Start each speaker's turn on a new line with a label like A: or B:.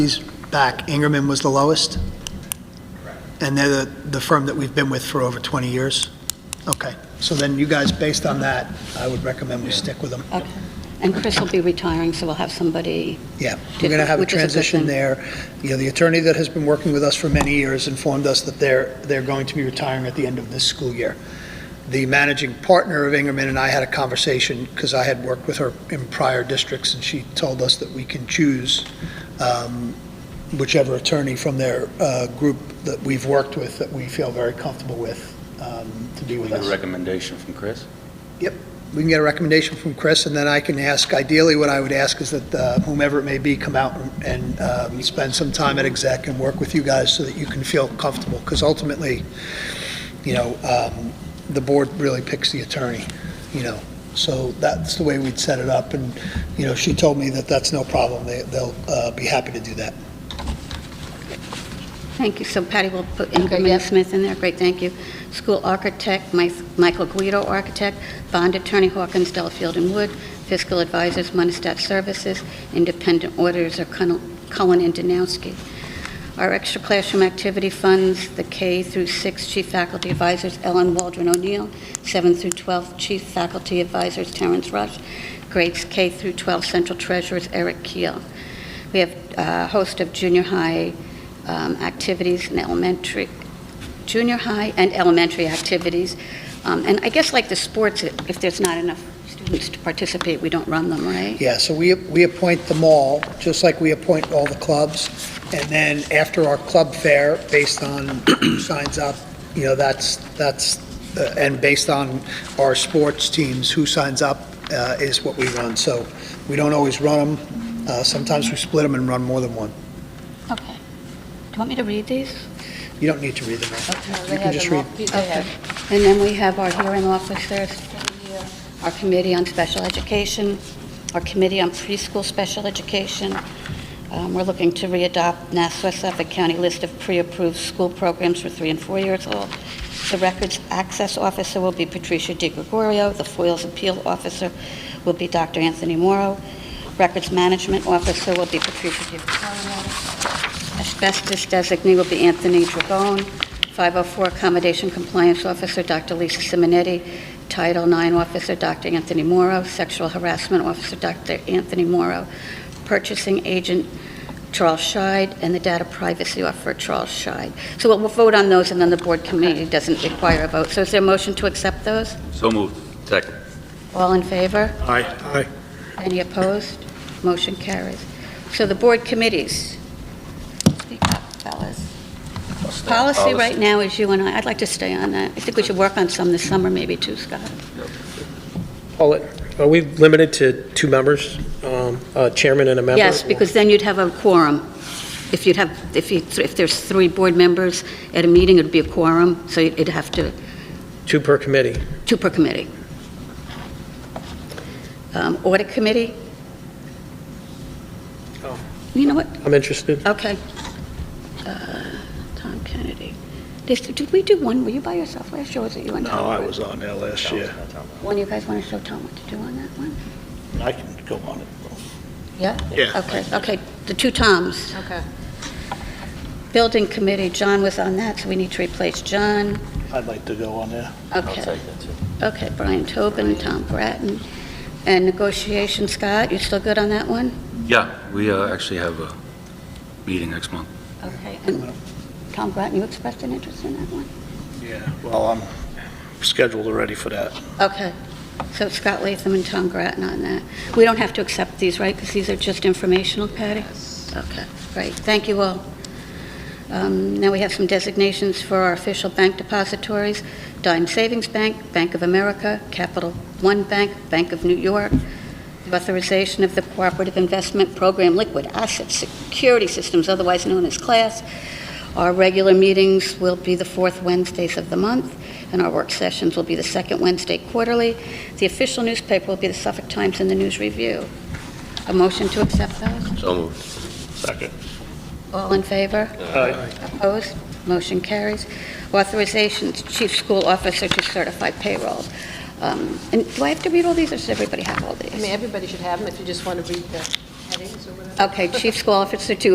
A: back, Ingerman was the lowest? And they're the, the firm that we've been with for over 20 years? Okay, so then you guys, based on that, I would recommend we stick with them.
B: And Chris will be retiring, so we'll have somebody,
A: Yeah, we're going to have a
B: Which is a good
A: transition
B: thing.
A: there. You know, the attorney that has been working with us for many years informed us that they're, they're going to be retiring at the end of this school year. The managing partner of Ingerman and I had a conversation, because I had worked with her in prior districts, and she told us that we can choose um, whichever attorney from their uh, group that we've worked with, that we feel very comfortable with, um, to be
C: We
A: with
C: get a
A: us.
C: recommendation from Chris?
A: We can get a recommendation from Chris, and then I can ask, ideally, what I would ask is that uh, whomever it may be, come out and um, spend some time at exec and work with you guys so that you can feel comfortable, because ultimately, you know, um, the board really picks the attorney, you know, so that's the way we'd set it up, and, you know, she told me that that's no problem, They- they'll uh, be happy to do that.
B: thank you. So Patty will put Ingram Smith in there, great, thank you. School architect, Mi- Michael Guido architect, bond attorney Hawkins, Delafield and Wood, fiscal advisors, Monistat Services, independent auditors are Cun- Cullen and Danowski. Our extra classroom activity funds, the K through 6 chief faculty advisors Ellen Waldron O'Neill, 7 through 12 chief faculty advisors Terrence Rush, grades K through 12 central treasurers Eric Keel. We have a host of junior high um, activities and elementary, junior high and elementary activities. Um, And I guess like the sports, if there's not enough students to participate, we don't run them, right?
A: Yeah, so we, we appoint them all, just like we appoint all the clubs. And then after our club fair, based on who signs up, you know, that's, that's, uh, and based on our sports teams, who signs up uh, is what we run. So we don't always run them. Sometimes we split them and run more than one.
B: Okay. Do you want me to read these?
A: You don't need to read them. out. You can just read.
B: Okay. And then we have our hearing officers, our committee on special education, our committee on preschool special education. Um, We're looking to readopt Nassau Suffolk County list of pre-approved school programs for three and four years old. The records access officer will be Patricia Di Gregorio. The FOIL's appeal officer will be Dr. Anthony Morrow. Records management officer will be Patricia Di Gregorio. Asbestos designee will be Anthony Dragone. 504 Accommodation Compliance Officer, Dr. Lisa Simonetti. Title IX Officer, Dr. Anthony Morrow. Sexual Harassment Officer, Dr. Anthony Morrow. Purchasing Agent, Charles Scheid, and the Data Privacy Officer, Charles Scheid. So we'll we'll vote on those, and then the board committee doesn't require a vote. So is there a motion to accept those?
C: So moved. Second.
B: All in favor?
D: Aye. Aye.
B: Any opposed? Motion carries. So the board committees. Speak up, fellas. Policy right now is you and I. I'd like to stay on that. I think we should work on some this summer, maybe too, Scott.
D: Paulette, are we limited to two members, um, a chairman and a member?
B: Yes, because then you'd have a quorum. If you'd have, if you, if there's three board members at a meeting, it'd be a quorum, so it'd have to,
D: Two per committee.
B: two per committee. Um, Audit committee?
D: Oh.
B: You know what?
D: I'm interested.
B: Okay. Uh, Tom Kennedy. This- Did we do one, were you by yourself last year, or was it you and Tom?
E: No, I was on there last year.
B: One of you guys want to show Tom what to do on that one?
E: I can go on it.
B: Yeah?
E: Yeah.
B: Okay, okay, the two Toms.
F: Okay.
B: Building committee, John was on that, so we need to replace John.
E: I'd like to go on there.
C: I'll
B: Okay,
C: take that, too.
B: okay, Brian Tobin, Tom Bratton. And negotiation, Scott, you still good on that one?
C: Yeah, we uh, actually have a meeting next month.
B: Okay. And Tom Bratton, you expressed an interest in that one?
E: Yeah. Well, I'm scheduled already for that.
B: Okay, so it's Scott Latham and Tom Grattan on that. We don't have to accept these, right, because these are just informational, Patty? Okay, great, thank you all. Um, Now we have some designations for our official bank depositories, Dime Savings Bank, Bank of America, Capital One Bank, Bank of New York, The authorization of the Cooperative Investment Program Liquid Asset Security Systems, otherwise known as CLASS. Our regular meetings will be the fourth Wednesdays of the month and our work sessions will be the second Wednesday quarterly. The official newspaper will be the Suffolk Times and the News Review. A motion to accept those?
C: So moved.
E: Second.
B: All in favor? Opposed? Motion carries. Authorization, Chief School Officer to certify payroll. Um, And do I have to read all these, or does everybody have all
F: I mean,
B: these?
F: everybody should have them if you just want to read the headings or whatever.
B: Okay, Chief School Officer to